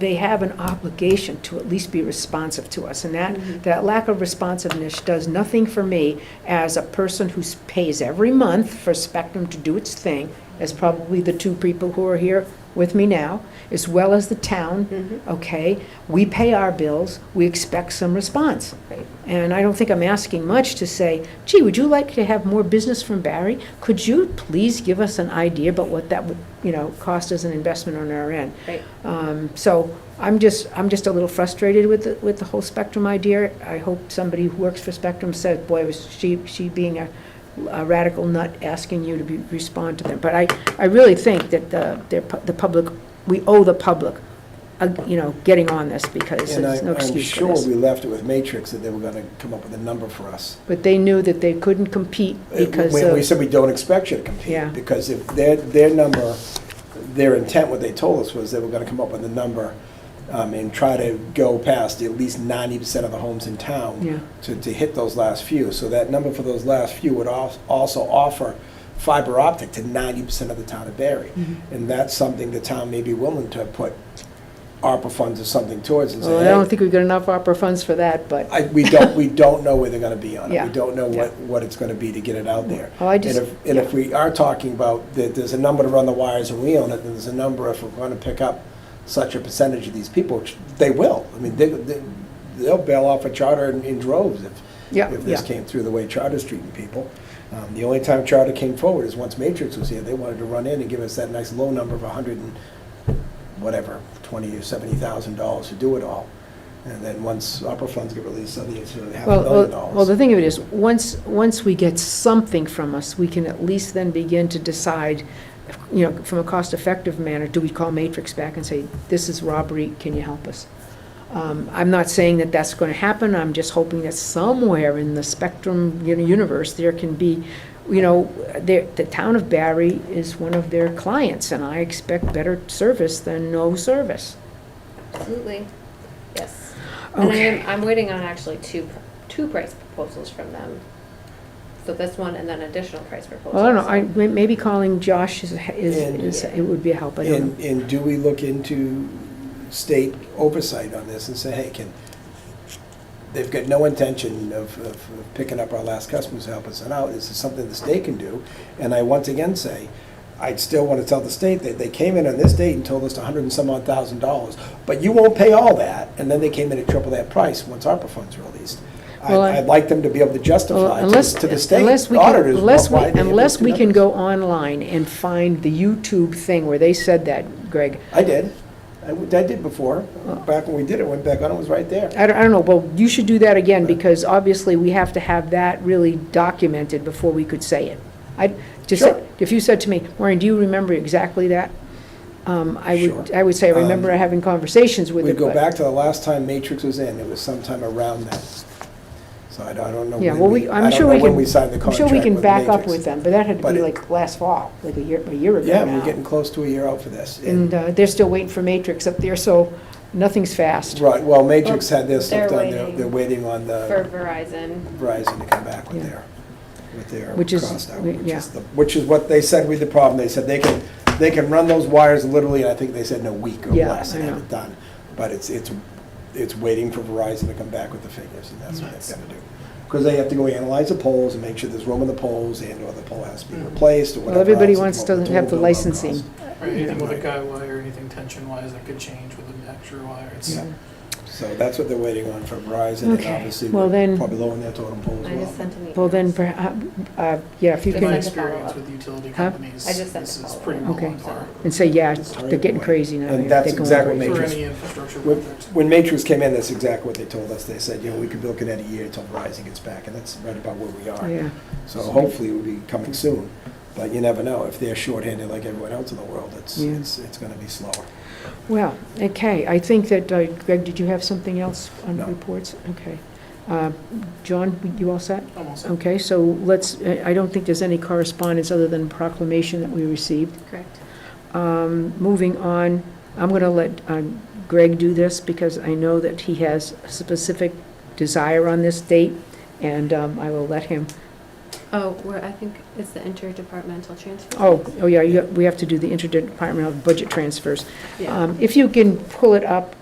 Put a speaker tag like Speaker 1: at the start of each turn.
Speaker 1: they have an obligation to at least be responsive to us. And
Speaker 2: Mm-hmm.
Speaker 1: that, that lack of responsiveness does nothing for me as a person who s- pays every month for Spectrum to do its thing, as probably the two people who are here with me now, as well as the
Speaker 2: Mm-hmm.
Speaker 1: town, okay? We pay our bills, we expect some response. And I don't think I'm asking much to say, gee, would you like to have more business from Barry? Could you please give us an idea about what that would, you know, cost as an investment on our end?
Speaker 2: Right.
Speaker 1: Um, So I'm just, I'm just a little frustrated with, the- with the whole Spectrum idea. I hope somebody who works for Spectrum said, boy, was she, she being a a radical nut asking you to be, respond to them. But I, I really think that the, their pu- the public, we owe the public, uh, you know, getting on this because
Speaker 3: And
Speaker 1: there's
Speaker 3: I'm
Speaker 1: no
Speaker 3: I'm
Speaker 1: excuse for
Speaker 3: sure
Speaker 1: this.
Speaker 3: we left it with Matrix that they were gonna come up with a number for us.
Speaker 1: But they knew that they couldn't compete because
Speaker 3: Uh, When we
Speaker 1: of,
Speaker 3: said we don't expect you to
Speaker 1: Yeah.
Speaker 3: compete, because if their, their number, their intent, what they told us was they were gonna come up with a number um, and try to go past at least ninety percent of the homes in
Speaker 1: Yeah.
Speaker 3: town to, to hit those last few. So that number for those last few would al- also offer fiber optic to ninety percent of the town of Barry.
Speaker 1: Mm-hmm.
Speaker 3: And that's something the town may be willing to put ARPA funds or something towards and say,
Speaker 1: well, I don't
Speaker 3: "Hey,
Speaker 1: think we've got enough opera funds for that, but,
Speaker 3: I, we don't, we don't know where they're gonna be on it.
Speaker 1: Yeah.
Speaker 3: We don't know what, what it's gonna be to get it out there.
Speaker 1: Oh, I just-
Speaker 3: And if, and if we are talking about that there's a number to run the wires and we own it, then there's a number if we're gonna pick up such a percentage of these people, which they will. I mean, they, they- they'll bail off a charter in in droves if,
Speaker 1: yeah,
Speaker 3: if this
Speaker 1: yeah.
Speaker 3: came through the way charter's treating people. Um, The only time charter came forward is once Matrix was here, they wanted to run in and give us that nice low number of a hundred and whatever, twenty or seventy thousand dollars to do it all. And then once opera funds get released, suddenly it's half a
Speaker 1: Well,
Speaker 3: million
Speaker 1: well, well, the
Speaker 3: dollars.
Speaker 1: thing of it is, once, once we get something from us, we can at least then begin to decide, you know, from a cost-effective manner, do we call Matrix back and say, this is robbery, can you help us? Um, I'm not saying that that's going to happen, I'm just hoping that somewhere in the spectrum, you know, universe, there can be, you know, there, the town of Barry is one of their clients, and I expect better service than no service.
Speaker 2: Absolutely, yes. And I
Speaker 1: Okay,
Speaker 2: am, I'm waiting on actually two, pr- two price proposals from them. So this one and then additional price proposal.
Speaker 1: well, Oh, I don't know,
Speaker 2: so-
Speaker 1: I, may- maybe calling Josh is, is,
Speaker 3: And-
Speaker 1: is, it would be a help, I don't know.
Speaker 3: And, and do we look into state oversight on this and say, hey, can, they've got no intention of, of of picking up our last customers, to help us out, is this something the state can do? And I once again say, I'd still want to tell the state that they came in on this date and told us a hundred and some odd thousand dollars, but you won't pay all that, and then they came in at triple that price once ARPA funds are released. I-
Speaker 1: Well, I-
Speaker 3: I'd like them to be able to
Speaker 1: Well,
Speaker 3: justify to the
Speaker 1: unless-
Speaker 3: to the state
Speaker 1: unless we can-
Speaker 3: auditors
Speaker 1: unless we-
Speaker 3: why they
Speaker 1: Unless
Speaker 3: have those
Speaker 1: we can
Speaker 3: numbers.
Speaker 1: go online and find the YouTube thing where they said that, Greg.
Speaker 3: I did. I w- I did before. Back when we did it, went back on, it was right there.
Speaker 1: I don't, I don't know, well, you should do that again, because obviously we have to have that really documented before we could say it. I, just,
Speaker 3: Sure.
Speaker 1: if you said to me, Maureen, do you remember exactly that? Um, I would,
Speaker 3: Sure.
Speaker 1: I would say, I remember
Speaker 3: Um,
Speaker 1: having conversations with
Speaker 3: We
Speaker 1: it,
Speaker 3: go
Speaker 1: but-
Speaker 3: back to the last time Matrix was in, it was sometime around that. So I don't, I don't know.
Speaker 1: Yeah,
Speaker 3: when
Speaker 1: well, we,
Speaker 3: I
Speaker 1: I'm
Speaker 3: don't
Speaker 1: sure
Speaker 3: know
Speaker 1: we
Speaker 3: when
Speaker 1: can,
Speaker 3: we signed the
Speaker 1: I'm sure we
Speaker 3: contract
Speaker 1: can
Speaker 3: with
Speaker 1: back up
Speaker 3: Matrix.
Speaker 1: with them, but that had to
Speaker 3: But
Speaker 1: be
Speaker 3: it-
Speaker 1: like last fall, like a year, a year ago
Speaker 3: Yeah, we're
Speaker 1: now.
Speaker 3: getting close to a year out for this.
Speaker 1: And
Speaker 3: And,
Speaker 1: uh, they're still waiting for Matrix up there, so nothing's fast.
Speaker 3: right, well, Matrix had their
Speaker 2: They're
Speaker 3: stuff done, they're,
Speaker 2: waiting.
Speaker 3: they're waiting on
Speaker 2: For
Speaker 3: the
Speaker 2: Verizon,
Speaker 3: Verizon to come back with
Speaker 1: Yeah.
Speaker 3: their, with their
Speaker 1: Which is-
Speaker 3: cost out,
Speaker 1: we-
Speaker 3: which
Speaker 1: yeah.
Speaker 3: is, the- which is what they said with the problem. They said they can, they can run those wires literally, I think they said in a week or
Speaker 1: Yeah,
Speaker 3: less and
Speaker 1: I
Speaker 3: have
Speaker 1: know.
Speaker 3: it done. But it's, it's, it's waiting for Verizon to come back with the figures, and that's what they've got to do. Because they have to go analyze the poles and make sure there's room in the poles, and/or the pole has to be replaced, or
Speaker 1: Mm. Well,
Speaker 3: whatever
Speaker 1: everybody
Speaker 3: else, and
Speaker 1: wants
Speaker 3: what
Speaker 1: to
Speaker 3: total
Speaker 1: have the
Speaker 3: build-out
Speaker 1: licensing.
Speaker 3: costs.
Speaker 4: Right, anything with a guy wire, anything tension wise that could change with an extra wire, it's,
Speaker 3: Yeah. So that's what they're waiting on from Verizon, and
Speaker 1: Okay.
Speaker 3: obviously,
Speaker 1: Well, then-
Speaker 3: we're probably lowering their total pole
Speaker 2: I just
Speaker 3: as well.
Speaker 2: sent an email.
Speaker 1: Well, then, perha- uh, yeah, if you
Speaker 4: in my
Speaker 1: can,
Speaker 2: Thanks.
Speaker 4: experience with utility
Speaker 1: Huh?
Speaker 4: companies,
Speaker 2: I just sent
Speaker 4: this
Speaker 2: the
Speaker 4: is
Speaker 2: follow-up.
Speaker 4: pretty well
Speaker 1: Okay.
Speaker 4: on par.
Speaker 1: and say, yeah, they're getting crazy now.
Speaker 3: And
Speaker 1: yeah,
Speaker 3: that's
Speaker 1: they're going
Speaker 3: exactly
Speaker 1: crazy.
Speaker 3: what
Speaker 4: For
Speaker 3: Matrix-
Speaker 4: any infrastructure
Speaker 3: When-
Speaker 4: project.
Speaker 3: When Matrix came in, that's exactly what they told us. They said, you know, we could be looking at a year until Verizon gets back, and that's right about where we are.
Speaker 1: Yeah,
Speaker 3: So hopefully it will be coming soon, but you never know. If they're shorthanded like everyone else in the world, it's,
Speaker 1: Yeah.
Speaker 3: it's, it's gonna be slower.
Speaker 1: well, okay, I think that, uh, Greg, did you have something else on
Speaker 3: No.
Speaker 1: reports? Okay. Uh, John, you all set?
Speaker 4: Almost.
Speaker 1: Okay, so let's, I I don't think there's any correspondence other than proclamation that we received.
Speaker 2: Correct.
Speaker 1: Um, Moving on, I'm going to let um, Greg do this because I know that he has a specific desire on this date, and um, I will let him
Speaker 2: Oh, where, I think it's the interdepartmental transfer.
Speaker 1: Oh, oh yeah, you- we have to do the interdepartmental budget transfers.
Speaker 2: Yeah.
Speaker 1: Um, If you can pull it up